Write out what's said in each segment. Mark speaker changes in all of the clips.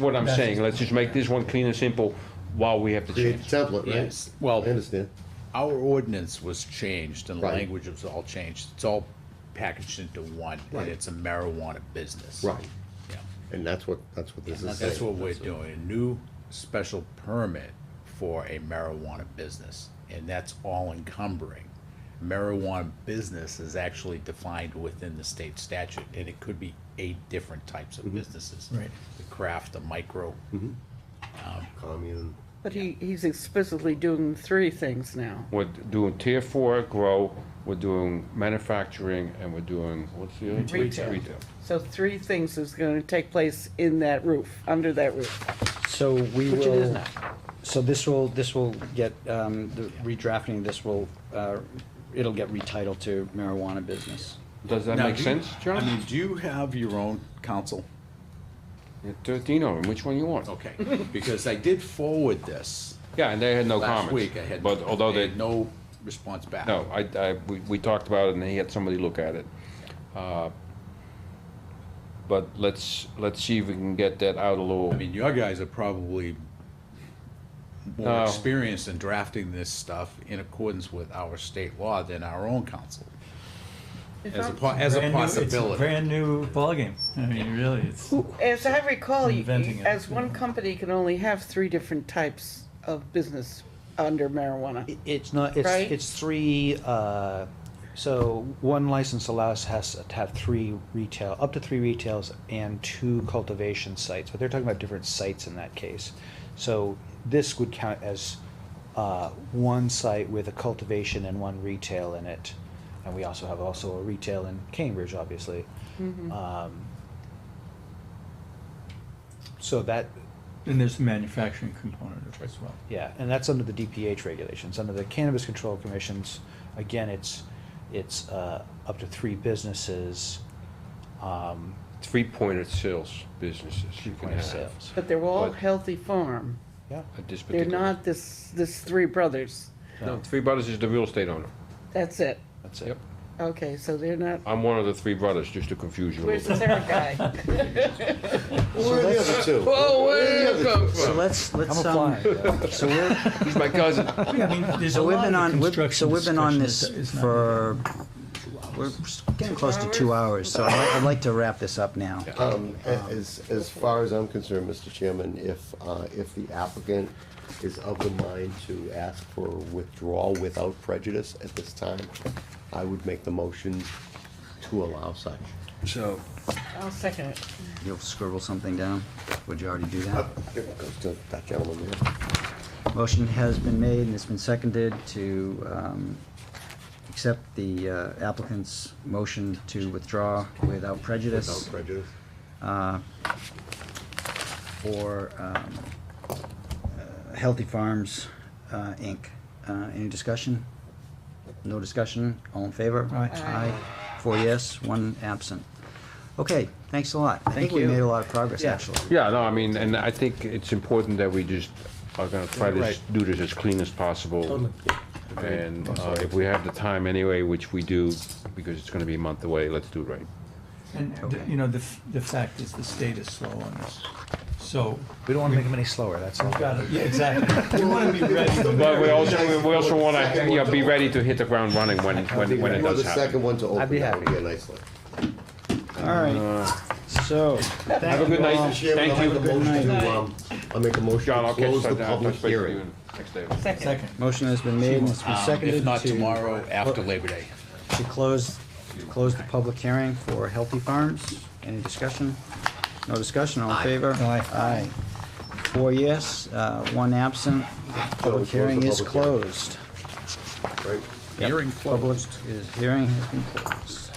Speaker 1: what I'm
Speaker 2: That's-
Speaker 1: saying, let's just make this one clean and simple while we have to
Speaker 3: Create
Speaker 1: change.
Speaker 3: a template, right?
Speaker 4: Yes. Well-
Speaker 3: I understand.
Speaker 4: Our ordinance was changed and the
Speaker 3: Right.
Speaker 4: language was all changed. It's all packaged into one and it's a marijuana business.
Speaker 3: Right.
Speaker 4: Yeah.
Speaker 3: And that's what, that's what this is saying.
Speaker 4: That's what we're doing, a new special permit for a marijuana business, and that's all encumbering. Marijuana business is actually defined within the state statute, and it could be eight different types
Speaker 1: Mm-hmm.
Speaker 4: of businesses.
Speaker 2: Right.
Speaker 4: The craft, the micro,
Speaker 3: Commune.
Speaker 5: But he, he's explicitly doing three things now.
Speaker 1: We're doing tier four grow, we're doing manufacturing, and we're doing, what's the other?
Speaker 5: Retail. So three things is gonna take place in that roof, under that roof.
Speaker 6: So we will.
Speaker 5: Which it is now.
Speaker 6: So this will, this will get, um, the redrafting, this will, uh, it'll get retitled to marijuana business.
Speaker 1: Does that
Speaker 4: Now,
Speaker 1: make
Speaker 4: do you-
Speaker 1: sense,
Speaker 4: I
Speaker 1: John?
Speaker 4: mean, do you have your own counsel?
Speaker 1: You're Thirteen of them, which one you want?
Speaker 4: Okay, because I did forward this
Speaker 1: Yeah, and they had no
Speaker 4: last
Speaker 1: comments,
Speaker 4: week. I had,
Speaker 1: but although
Speaker 4: I
Speaker 1: they,
Speaker 4: had no response back.
Speaker 1: no, I, I, we, we talked about it and he had somebody look at it. Uh, But let's, let's see if we can get that out a little.
Speaker 4: I mean, your guys are probably
Speaker 1: No.
Speaker 4: more experienced in drafting this stuff in accordance with our state law than our own council. As a, po- as a
Speaker 2: Brand new- it's
Speaker 4: possibility.
Speaker 2: Brand new ballgame. I mean, really, it's.
Speaker 5: As I recall, you-
Speaker 2: Inventing
Speaker 5: you-
Speaker 2: it,
Speaker 5: as
Speaker 2: yeah.
Speaker 5: one company can only have three different types of business under marijuana.
Speaker 6: It- It's not, it's,
Speaker 5: Right.
Speaker 6: it's three, uh, so one license allows us to have three retail, up to three retails and two cultivation sites, but they're talking about different sites in that case. So this would count as, uh, one site with a cultivation and one retail in it. And we also have also a retail in Cambridge, obviously. Um, So that,
Speaker 2: And there's a manufacturing component of it as well.
Speaker 6: yeah, and that's under the DPH regulations, under the Cannabis Control Commission's, again, it's, it's, uh, up to three businesses, um,
Speaker 1: Three-pointed sales businesses you can
Speaker 6: point of
Speaker 1: have
Speaker 6: sales.
Speaker 5: But they're all
Speaker 1: But-
Speaker 5: Healthy Farm.
Speaker 6: Yeah,
Speaker 1: at this
Speaker 5: They're
Speaker 1: particular.
Speaker 5: not this, this Three Brothers.
Speaker 1: No, Three Brothers is the real estate owner.
Speaker 5: That's it.
Speaker 6: that's it.
Speaker 1: Yep.
Speaker 5: Okay, so they're not,
Speaker 1: I'm one of the three brothers, just to confuse you a
Speaker 5: where's
Speaker 1: little
Speaker 5: the
Speaker 1: bit.
Speaker 5: third guy?
Speaker 3: Where are the other two?
Speaker 1: Whoa, where
Speaker 3: Where
Speaker 1: did
Speaker 3: are
Speaker 1: you
Speaker 3: the other
Speaker 1: come
Speaker 3: two?
Speaker 7: So
Speaker 1: from?
Speaker 7: let's,
Speaker 6: I'm
Speaker 7: let's, um,
Speaker 6: applying.
Speaker 7: so we're,
Speaker 1: He's my cousin.
Speaker 2: Yeah, I mean, there's a
Speaker 7: so we've
Speaker 2: lot
Speaker 7: been
Speaker 2: of
Speaker 7: on, we've- so
Speaker 2: construction
Speaker 7: we've been on this
Speaker 2: discussion that is not-
Speaker 7: for, we're getting close to two hours, so I'd like- I'd like to wrap this up now.
Speaker 3: Um, a- as, as far as I'm concerned, Mr. Chairman, if, uh, if the applicant is of the mind to ask for withdrawal without prejudice at this time, I would make the motion to allow such.
Speaker 7: So
Speaker 5: I'll second it.
Speaker 7: you'll scribble something down? Would you already do that?
Speaker 3: Here it goes to that gentleman there.
Speaker 7: Motion has been made and it's been seconded to um, accept the uh, applicant's motion to withdraw without
Speaker 3: Without
Speaker 7: prejudice Uh,
Speaker 3: prejudice.
Speaker 7: for um, uh, Healthy Farms, uh, Inc. Uh, Any discussion? No discussion? All in favor?
Speaker 2: Aye.
Speaker 5: Aye.
Speaker 7: Four yes, one absent. Okay, thanks a lot. I think
Speaker 6: Thank
Speaker 7: we
Speaker 6: you.
Speaker 7: made a lot of progress,
Speaker 6: Yeah.
Speaker 7: actually.
Speaker 1: Yeah, no, I mean, and I think it's important that we just are gonna try to s- do this as clean as possible. And uh, if we have the time anyway, which we do, because it's gonna be a month away, let's do it right.
Speaker 2: And, the-
Speaker 7: Okay.
Speaker 2: you know, the, f- the fact is the state is slow on this. So,
Speaker 6: We don't wanna make them any slower, that's all.
Speaker 2: we've got to, yeah, exactly. We want to be ready.
Speaker 1: But we also, we also wanna, you know, be ready to hit the ground running when, when, when it
Speaker 3: You are
Speaker 1: does
Speaker 3: the second
Speaker 1: happen.
Speaker 3: one to open.
Speaker 6: be
Speaker 3: That would
Speaker 6: happy.
Speaker 3: a nice one.
Speaker 7: All right, so.
Speaker 1: Have a good night, thank
Speaker 3: I'll make a
Speaker 1: you.
Speaker 3: motion to, um, I'll make a motion
Speaker 1: John,
Speaker 3: to
Speaker 1: I'll catch,
Speaker 3: close the
Speaker 1: I'll
Speaker 3: public
Speaker 1: touch base with you
Speaker 3: hearing.
Speaker 1: next day.
Speaker 2: Second.
Speaker 7: Motion has been made and it's been
Speaker 4: Um,
Speaker 7: seconded
Speaker 4: If not
Speaker 7: to-
Speaker 4: tomorrow, after Labor Day.
Speaker 7: To close, to close the public hearing for Healthy Farms. Any discussion? No discussion, all in favor?
Speaker 2: Aye.
Speaker 7: Aye. Four yes, uh, one absent. Public
Speaker 3: close the
Speaker 7: hearing is
Speaker 3: public hearing.
Speaker 7: closed.
Speaker 3: Right?
Speaker 4: Hearing
Speaker 7: Public
Speaker 4: closed.
Speaker 7: is, hearing has been closed.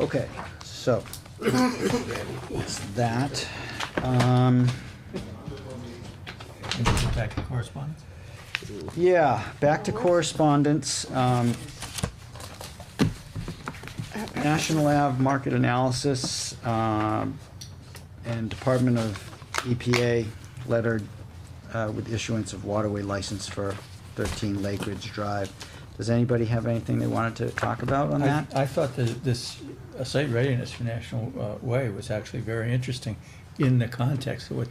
Speaker 7: Okay, so, it's that. Um,
Speaker 2: Back to correspondence.
Speaker 7: Yeah, back to correspondence. um, National Ave Market Analysis um, and Department of EPA lettered uh, with issuance of waterway license for 13 Lakeridge Drive. Does anybody have anything they wanted to talk about on
Speaker 2: I,
Speaker 7: that?
Speaker 2: I thought that this uh, site readiness for National uh, Way was actually very interesting. in the context of what